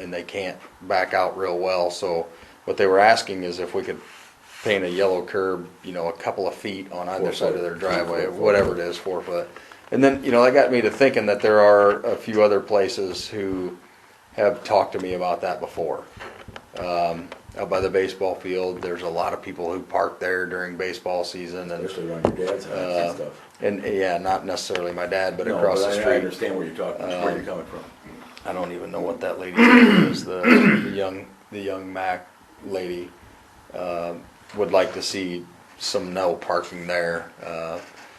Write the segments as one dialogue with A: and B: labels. A: and they can't back out real well, so what they were asking is if we could paint a yellow curb, you know, a couple of feet on either
B: Four
A: side of
B: foot.
A: their driveway,
B: Four foot.
A: whatever it is, four foot. And then, you know, that got me to thinking that there are a few other places who have talked to me about that before. Um, out by the baseball field, there's a lot of people who park there during baseball season and,
B: especially around your dad's house and
A: uh,
B: stuff.
A: and, yeah, not necessarily my dad, but
B: No,
A: across
B: but
A: the
B: I- I
A: street.
B: understand where you're talking, where you're coming from.
A: I don't even know what that lady's name is, the, the young, the young Mac lady, um, would like to see some no parking there. Uh,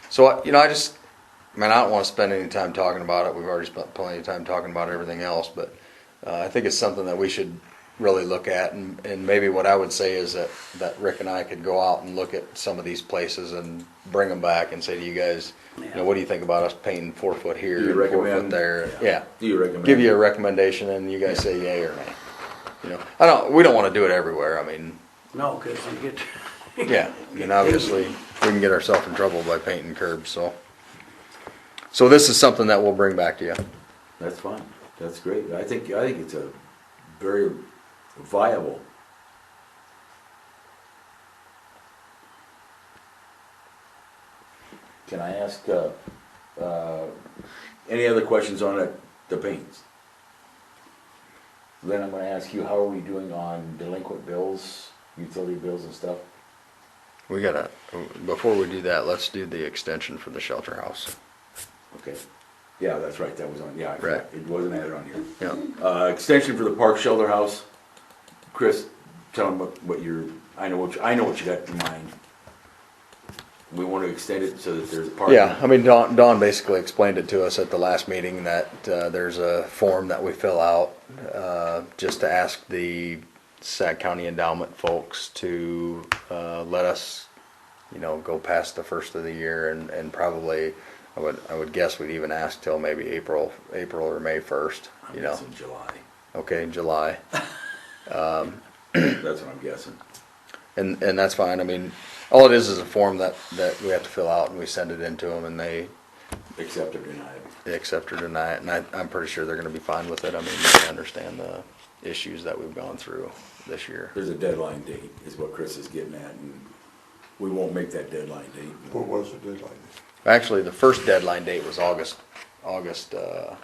A: So, I- you know, I just, man, I don't wanna spend any time talking about it, we've already spent plenty of time talking about everything else, but, uh, I think it's something that we should really look at, and, and maybe what I would say is that, that Rick and I could go out and look at some of these places and bring them back and say to you guys, you know, what do you think about us painting four foot here
B: Do you
A: and four foot
B: recommend-
A: there? Yeah
B: Do you recommend?
A: give you a recommendation and you guys say yay or nay. You know, I don't, we don't wanna do it everywhere, I mean,
C: No, cause you get,
A: yeah, and obviously, we can get ourselves in trouble by painting curbs, so. So this is something that we'll bring back to you.
B: That's fine, that's great, I think, I think it's a very viable. Can I ask, uh, uh, any other questions on it, the paints?
D: Then I'm gonna ask you, how are we doing on delinquent bills, utility bills and stuff?
A: We gotta, before we do that, let's do the extension for the shelter house.
B: Okay, yeah, that's right, that was on, yeah, I forgot.
A: Right.
B: it wasn't added on here.
A: Yeah,
B: Uh, extension for the park shelter house. Chris, tell them what, what you're, I know what, you- I know what you got in mind. We want to extend it so that there's parking.
A: yeah, I mean, Don, Don basically explained it to us at the last meeting that, uh, there's a form that we fill out, uh, just to ask the Sac County Endowment folks to, uh, let us you know, go past the first of the year and, and probably, I would, I would guess we'd even ask till maybe April, April or May first,
B: I'm
A: you know,
B: guessing July.
A: okay, July.
B: That's what I'm guessing.
A: And, and that's fine, I mean, all it is is a form that, that we have to fill out and we send it in to them and they,
B: Accept or deny it.
A: they accept or deny it. And I, I'm pretty sure they're gonna be fine with it, I mean, they understand the issues that we've gone through this year.
B: There's a deadline date, is what Chris is getting at, and we won't make that deadline date.
E: What was the deadline?
A: Actually, the first deadline date was August, August, uh,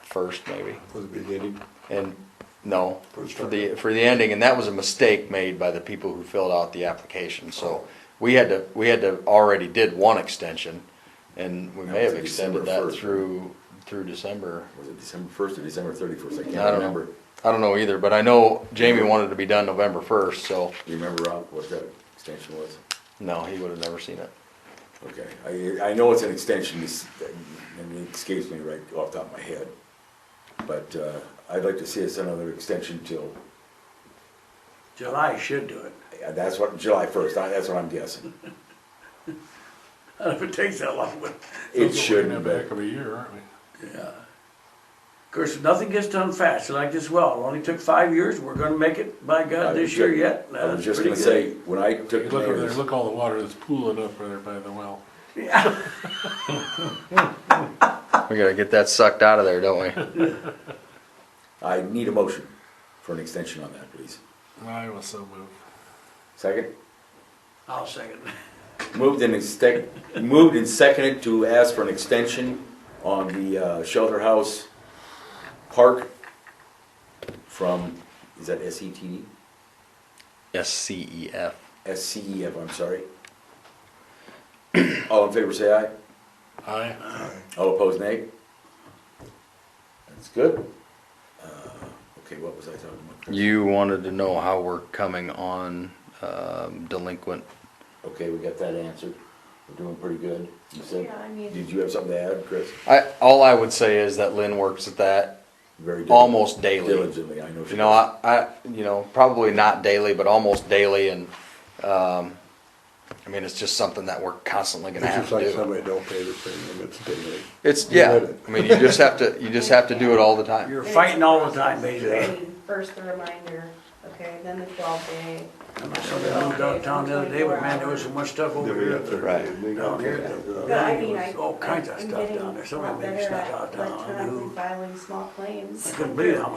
A: first maybe.
E: For the beginning?
A: And, no,
E: For the
A: for the, for the ending, and that was a mistake made by the people who filled out the application,
B: Oh.
A: so we had to, we had to, already did one extension, and we
B: That
A: may
B: was
A: have
B: December
A: extended that
B: 1st.
A: through, through December.
B: Was it December first or December thirty-first? I
A: I
B: can't
A: don't
B: remember.
A: know, I don't know either, but I know Jamie wanted to be done November first, so,
B: You remember, Rob, what that extension was?
A: no, he would have never seen it.
B: Okay, I, I know it's an extension, it's- and it escapes me right off the top of my head. But, uh, I'd like to see us another extension till,
C: July should do it,
B: yeah, that's what, July first, that's what I'm guessing.
C: I don't know if it takes that long, but,
B: It
F: Those are way
B: shouldn't,
F: in the back
B: but,
F: of a year, aren't we?
C: yeah. Of course, nothing gets done fast, like this well, it only took five years, we're gonna make it, by
B: I
C: God,
B: was
C: this year
B: ju-
C: yet,
B: I was
C: that's
B: just
C: pretty
B: gonna
C: good.
B: say, when I took
F: You Look over there,
B: mayor's,
F: look all the water that's pooling up right there by the well.
C: Yeah,
A: We gotta get that sucked out of there, don't we?
B: I need a motion for an extension on that, please.
F: I was so moved.
B: Second?
C: I'll second,
B: Moved and extec, moved and seconded to ask for an extension on the, uh, shelter house park from, is that S E T D?
A: S C E F.
B: SCEF, E I'm sorry. All in favor, say aye.
F: Aye.
B: All opposed, nay. That's good. Uh, Okay, what was I talking about?
A: You wanted to know how we're coming on, um, delinquent
D: Okay, we got that answered. We're doing pretty good. You said,
G: Yeah, I mean,
B: Did you have something to add, Chris?
A: I, all I would say is that Lynn works at that
B: Very diligently.
A: almost daily.
B: Diligently, I know. she
A: You know,
B: does.
A: I, I, you know, probably not daily, but almost daily and, um, I mean, it's just something that we're constantly
E: It's
A: gonna have
E: just
A: to
E: like
A: do.
E: somebody don't pay their premium, it's daily.
A: It's,
E: You
A: yeah,
E: read it.
A: I mean, you just have to, you just have to do it all the time.
C: you're fighting all the time,
G: I
C: basically.
G: mean, first the reminder, okay, then the twelve day.
C: I saw that on downtown the other day, but man, there was so much stuff over
E: Then we
C: here.
E: got there.
A: Right.
C: Down here,
G: But I mean, I.
C: There's all kinds of
G: I'm
C: stuff
G: getting
C: down there, somebody
G: a lot
C: made me
G: better
C: snuck
G: at
C: out down,
G: electronically
C: who,
G: Filing small
C: I
G: claims.
C: couldn't believe how